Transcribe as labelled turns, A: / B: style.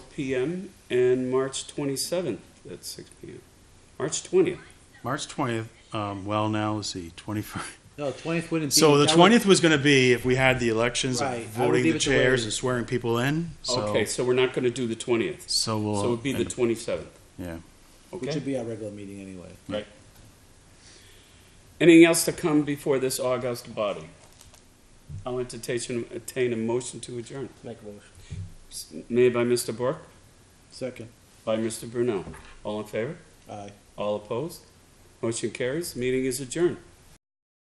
A: p.m. and March 27th at 6 p.m. March 20th.
B: March 20th, um, well, now, let's see, 21st.
C: No, twentieth wouldn't be.
B: So the
C: that would-
B: twentieth was going to be if we had the elections, of
C: Right, I would
B: voting
C: leave
B: the
C: it the way it
B: chairs
C: is.
B: and swearing people in. So,
A: Okay, so we're not going to do the 20th.
B: So we'll.
A: So it would be the
B: end up-
A: 27th.
B: Yeah.
C: Which would
A: Okay?
C: be our regular meeting anyway.
A: Right. Anything else to come before this August body? I'll entertain, attain a motion to adjourn.
D: Make a motion.
A: S- Made by Mr. Bork,
C: Second,
A: by Mr. Brunel. All in favor?
C: aye.
A: All opposed? Motion carries. Meeting is adjourned.